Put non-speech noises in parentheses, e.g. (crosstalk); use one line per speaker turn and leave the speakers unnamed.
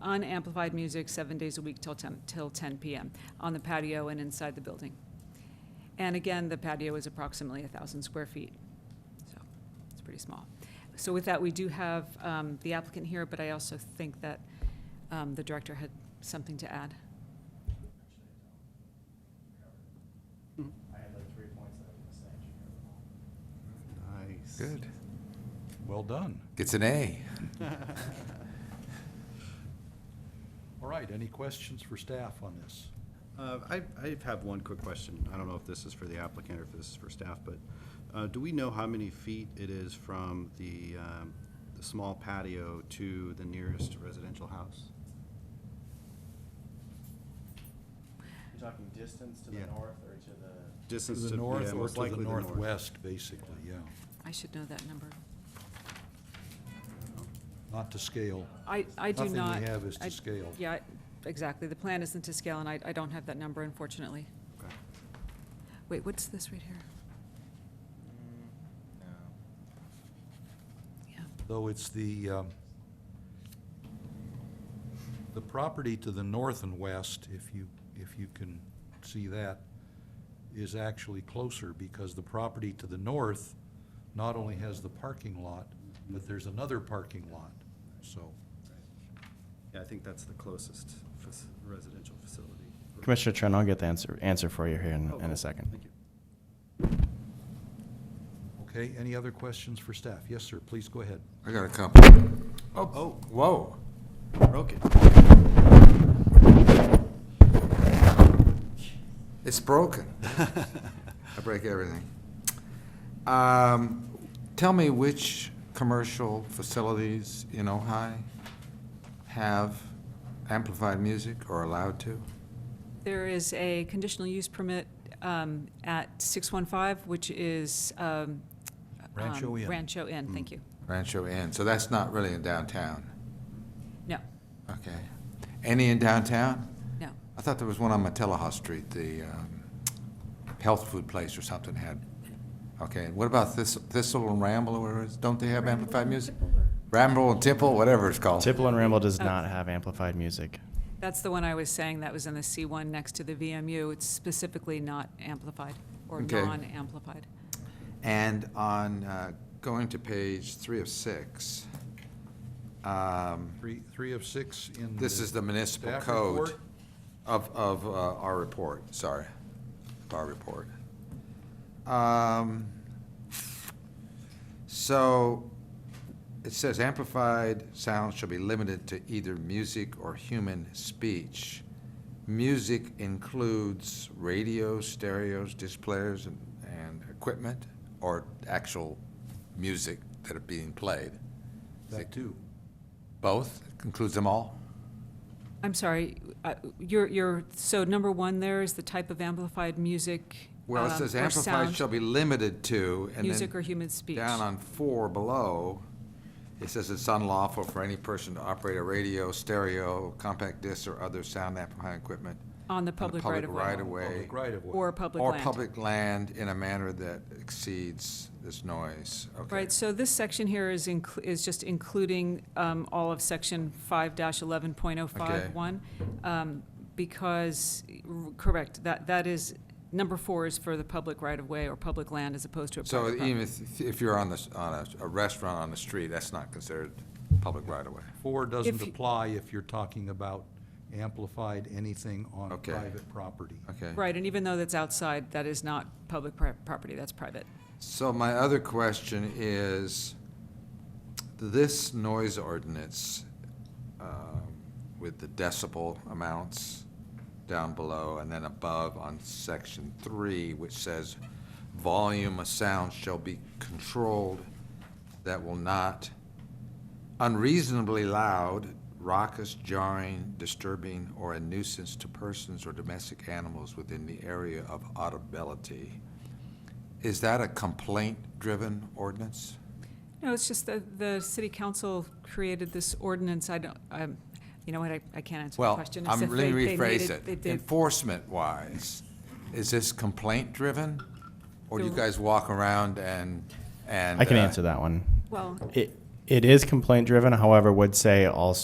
on amplified music seven days a week till 10, till 10 p.m. on the patio and inside the building. And again, the patio is approximately 1,000 square feet, so it's pretty small. So with that, we do have um, the applicant here, but I also think that um, the director had something to add.
I had like three points that I was gonna say, and you covered them all.
Nice. (laughs)
Good. Well done.
It's an A.
Uh,
All right, any questions for staff on this?
Uh, I, I have one quick question. I don't know if this is for the applicant or if this is for staff, but uh, do we know how many feet it is from the, um, the small patio to the nearest residential house?
You're talking distance to the
Yeah.
north or to the,
Distance to,
the
yeah,
north or
most
to the
likely the north.
northwest, basically, yeah.
I should know that number.
Not to scale.
I, I do
Nothing we
not.
have is to
I-
scale.
Yeah, I- exactly. The plan isn't to scale, and I, I don't have that number, unfortunately.
Okay.
Wait, what's this right here? Yeah,
Though it's the, um, the property to the north and west, if you, if you can see that, is actually closer because the property to the north not only has the parking lot, but there's another parking lot, so.
Yeah, I think that's the closest fac- residential facility.
Commissioner Trent, I'll get the answer, answer for you here in,
Oh,
in
cool.
a second.
Thank you.
Okay, any other questions for staff? Yes, sir, please go ahead.
I got a couple.
Oh.
Whoa.
Broke it.
It's broken. I break everything. Um, Tell me which commercial facilities in Ojai have amplified music or allowed to?
There is a conditional use permit um, at 615, which is. um,
Rancho
um,
Inn. Mm.
Rancho Inn, thank you.
Rancho Inn, so that's not really in downtown,
No,
okay? Any in downtown?
no.
I thought there was one on Matilla Street, the um, health food place or something had, okay, and what about Thist- Thistle and Ramble, or whatever it is? don't they have amplified music? Ramble and Temple, whatever it's called.
Tipple and Ramble does
Oh.
not have amplified music.
That's the one I was saying, that was in the C1 next to the VMU. It's specifically not amplified or
Okay.
non-amplified.
And on, uh, going to page three of six, um,
Three, three of six in.
this
the
is the municipal
staff
code
report.
of, of uh, our report, sorry, our report. Um, So, it says amplified sounds shall be limited to either music or human speech. Music includes radios, stereos, displays, and, and equipment, or actual music that are being played?
That too.
Both, includes them all?
I'm sorry, uh, you're, you're, so number one there is the type of amplified music.
Well, it
um,
says
or
amplified
sound,
shall be limited to, and
Music or
then
human speech.
down on four below, it says it's unlawful for any person to operate a radio, stereo, compact disc, or other sound amplifying equipment
On the
on the
public right
public
of
right of
way.
way.
Public right of way.
Or public
Or
land.
public land in a manner that exceeds this noise, okay?
Right, so this section here is inclu- is just including, um, all of section five dash eleven point oh five one. Um, because, r- correct, that, that is, number four is for the public right of way or public land as opposed to a
So
private
even
property.
if, if you're on this, on a, a restaurant on the street, that's not considered public right of way.
Four doesn't
If you-
apply if you're talking about amplified anything on
Okay.
private property.
Okay.
Right, and even though that's outside, that is not public pri- property, that's private.
So my other question is, this noise ordinance um, with the decibel amounts down below and then above on section three, which says volume of sound shall be controlled that will not unreasonably loud, raucous, jarring, disturbing, or a nuisance to persons or domestic animals within the area of audibility. Is that a complaint-driven ordinance?
No, it's just that the city council created this ordinance, I don't, um, you know what, I, I can't answer the
Well,
question. It's
I'm, let
that they-
me
they made
rephrase
they
it.
did-
Enforcement-wise, is this complaint-driven? Or do you
The-
guys walk around and, and?
I can
uh,
answer that one.
Well,
It, it is complaint driven, however, would say also